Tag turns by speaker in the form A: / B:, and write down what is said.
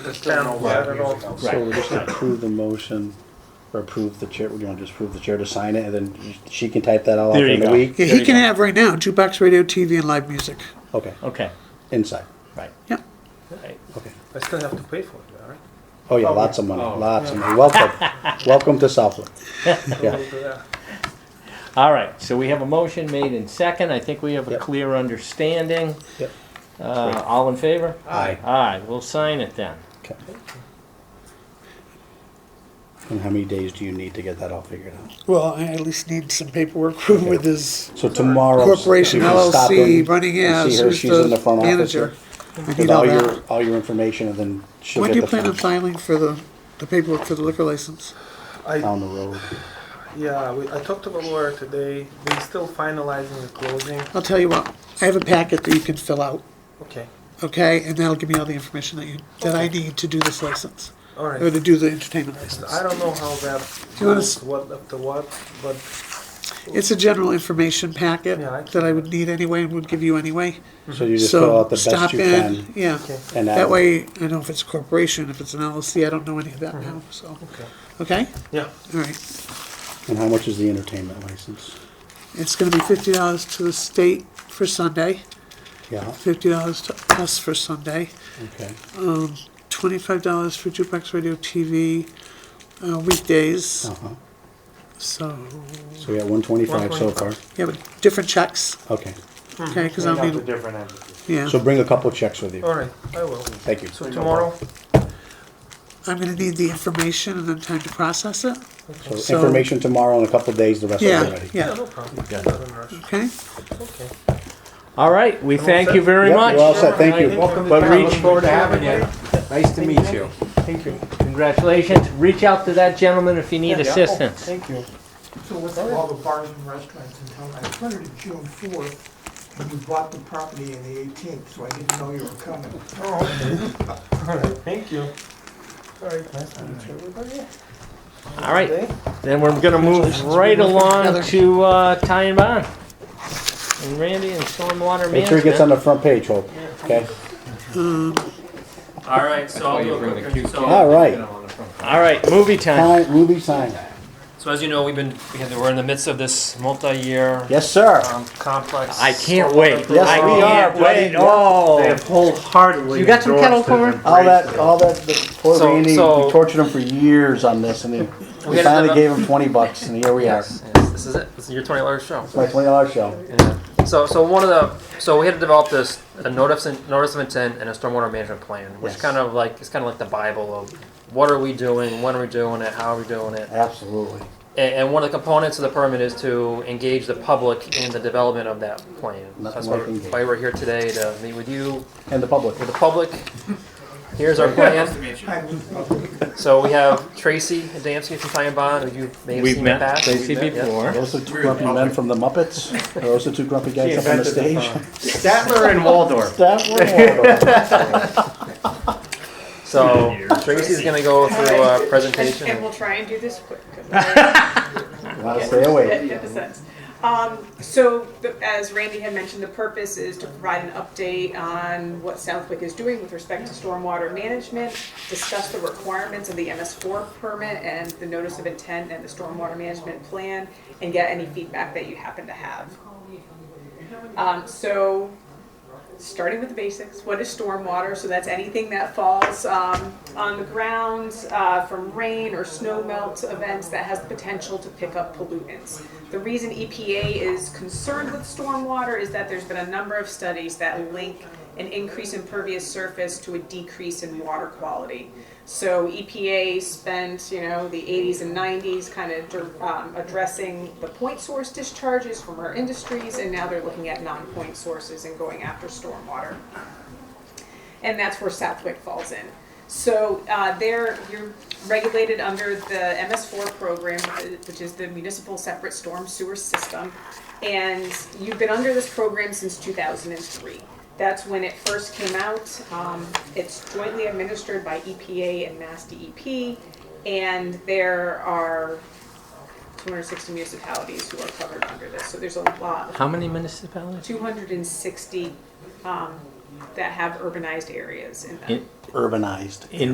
A: Town letter and all that.
B: So we'll just approve the motion, or approve the chair, you want to just approve the chair to sign it, and then she can type that all up
C: There you
B: in a
C: go.
B: week?
C: There
D: Yeah, he
C: you
D: can
C: go.
D: have right now jukebox, radio, TV, and live music.
B: Okay,
C: Okay,
B: inside,
C: right,
D: Yeah.
C: right.
B: okay.
A: I still have to pay for it, all right?
B: Oh yeah, lots of money, lots of money. Welcome, welcome to Southland.
A: We'll
B: Yeah,
A: do that.
C: All right, so we have a motion made in second. I think we have a
B: Yep.
C: clear understanding.
B: Yep.
C: Uh, all in favor?
B: Aye.
C: Aye, we'll sign it then.
B: okay. And how many days do you need to get that all figured out?
D: Well, I at least need some paperwork proof with his
B: So tomorrow.
D: corporation
B: you can stop
D: LLC
B: in
D: running
B: and
D: as
B: see her.
D: who's
B: She's
D: the,
B: in the front office
D: manager. I
B: With
D: need all
B: all
D: that.
B: your, all your information, and then she'll
D: When
B: get
D: do you
B: the
D: plan on
B: funds
D: filing for the, the paperwork for the liquor license?
A: I,
B: down the road.
A: yeah, we, I talked to the lawyer today, they're still finalizing the closing,
D: I'll tell you what, I have a packet that you can fill out,
A: okay,
D: okay? And that'll give me all the information that you, that I need to do this license,
A: all
D: or
A: right.
D: to do the entertainment license.
A: I don't know how that
D: Do you wanna
A: goes,
D: s-
A: what up to what, but,
D: It's a general information packet
A: Yeah, I-
D: that I would need anyway and would give you anyway.
B: So you just fill
D: So
B: out the
D: stop
B: best you
D: in,
B: can.
D: yeah.
A: Okay.
B: and add
D: That
B: it.
D: way, I know if it's a corporation, if it's an LLC, I don't know any of that now, so,
A: okay,
D: okay?
A: yeah,
D: All right,
B: And how much is the entertainment license?
D: it's gonna be fifty dollars to the state for Sunday,
B: Yeah,
D: fifty dollars to us for Sunday, um,
B: okay.
D: twenty-five dollars for jukebox radio TV, uh, weekdays,
B: Uh-huh.
D: so,
B: So we got one twenty-five so far.
D: yeah, but different checks,
B: Okay.
D: okay, cause
E: Clean
D: I'll
E: up the
D: need,
E: different entities.
D: yeah.
B: So bring a couple checks with you.
A: all right, I will.
B: Thank you.
A: So tomorrow,
D: I'm gonna need the information and then time to process it,
B: So information tomorrow in a couple days, the rest of it
D: yeah,
B: ready.
A: yeah,
D: yeah,
A: no problem,
B: Yeah.
A: not in a rush,
D: okay?
A: okay.
C: All right, we thank
A: set.
C: you very
B: Yep,
C: much.
B: You're all set, thank you.
E: Welcome to
C: But
E: town.
C: reach-
E: Look forward to having you. Nice to meet you.
A: Thank you.
C: Congratulations. Reach out to that gentleman if you need assistance.
E: Oh,
A: Thank you.
F: So with all the bars and restaurants in town, I started it June fourth, when you bought the property in the eighteenth, so I didn't know you were coming.
A: All right, thank you. All right, nice to meet you, everybody.
C: All right.
A: Okay.
C: Then we're gonna move right along to, uh, Ty and Bond. And Randy and Stormwater
B: Make sure it gets
C: Management.
B: on the front page, Hope, okay?
G: All right, so
B: Oh,
G: I'll do a quick, so.
B: All right,
C: All right, movie time.
B: sign, Ruby sign.
G: So as you know, we've been, we had, we're in the midst of this multi-year.
B: Yes, sir.
G: Um, complex.
C: I can't wait.
B: Yes,
C: I
B: we are,
C: can't
B: buddy.
C: wait. Oh.
E: They have wholeheartedly.
C: You got some kettle
E: endorsed it and
C: corn?
B: All
E: embraced
B: that,
E: it.
B: all that, the poor
G: So-
B: Randy, we
G: so-
B: tortured him for years on this, and then
G: We
B: we
G: had
B: finally
G: another-
B: gave him twenty bucks, and here we are.
G: Yes,
B: It's
G: yes, this is it. This is your twenty dollar show.
B: my twenty dollar show.
G: So, so one of the, so we had to develop this, a notice, in- notice of intent and a stormwater management plan, which
B: Yes.
G: kind of like, it's kind of like the bible of what are we doing, when are we doing it, how are we doing it?
B: Absolutely.
G: And, and one of the components of the permit is to engage the public in the development of that plan.
B: Nothing
G: That's why,
B: like engage.
G: why we're here today, to meet with you,
B: And the public.
G: with the public. Here's our plan.
F: I was-
G: So we have Tracy Adamski from Time Bond, who you may have
C: We've
G: seen in
C: met
G: the past.
C: Tracy
G: We've met, yeah.
C: before.
B: Those are two grumpy men from the Muppets. Are Those are two grumpy guys up on the
E: invented
B: stage.
E: the Statler and Waldorf.
B: That one.
G: So Tracy's gonna go through a presentation.
H: And we'll try and do this quick. 'cause I-
B: Gotta stay awake.
H: Get the sense. Um, so, the- as Randy had mentioned, the purpose is to provide an update on what Southwick is doing with respect to stormwater management, discuss the requirements of the MS4 permit and the notice of intent and the stormwater management plan, and get any feedback that you happen to have. Um, so, starting with the basics, what is stormwater? So that's anything that falls um, on the ground uh, from rain or snow melt events that has the potential to pick up pollutants. The reason EPA is concerned with stormwater is that there's been a number of studies that link an increase in pervious surface to a decrease in water quality. So EPA spent, you know, the 80s and 90s kind of um, addressing the point source discharges from our industries, and now they're looking at non-point sources and going after stormwater and that's where Southwick falls in. So uh, there, you're regulated under the MS4 program, which is the Municipal Separate Storm Sewer System, and you've been under this program since 2003. That's when it first came out. Um, It's jointly administered by EPA and Mass DEP, and there are 260 municipalities who are covered under this, so there's a lot of
C: How many municipalities?
H: 260 um, that have urbanized areas in them.
C: In-
B: Urbanized.